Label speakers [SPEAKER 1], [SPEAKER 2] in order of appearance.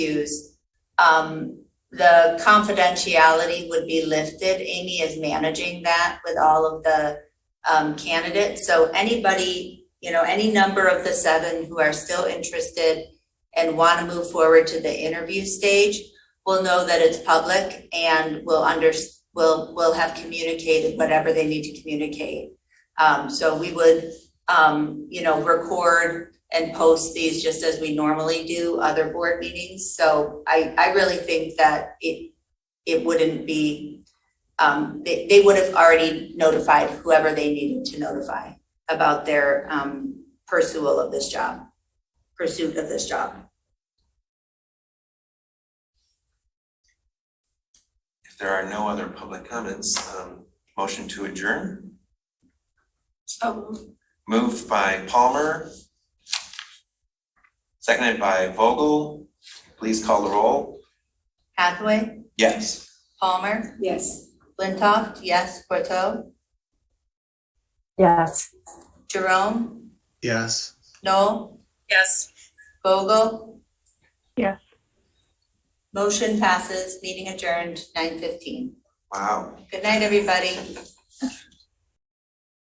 [SPEAKER 1] issues, um, the confidentiality would be lifted. Amy is managing that with all of the um, candidates. So anybody, you know, any number of the seven who are still interested and want to move forward to the interview stage will know that it's public and will under, will, will have communicated whatever they need to communicate. Um, so we would, um, you know, record and post these just as we normally do other board meetings. So I, I really think that it, it wouldn't be, um, they, they would have already notified whoever they needed to notify about their, um, pursuit of this job, pursuit of this job.
[SPEAKER 2] If there are no other public comments, um, motion to adjourn, moved by Palmer. Seconded by Vogel, please call the roll.
[SPEAKER 1] Hathaway,
[SPEAKER 2] Yes.
[SPEAKER 1] Palmer,
[SPEAKER 3] Yes.
[SPEAKER 1] Flintoff, yes, Corto,
[SPEAKER 3] Yes.
[SPEAKER 1] Jerome,
[SPEAKER 4] Yes.
[SPEAKER 1] Noel,
[SPEAKER 3] Yes.
[SPEAKER 1] Vogel.
[SPEAKER 5] Yes.
[SPEAKER 1] Motion passes, meeting adjourned, nine fifteen.
[SPEAKER 2] Wow,
[SPEAKER 1] Good night, everybody.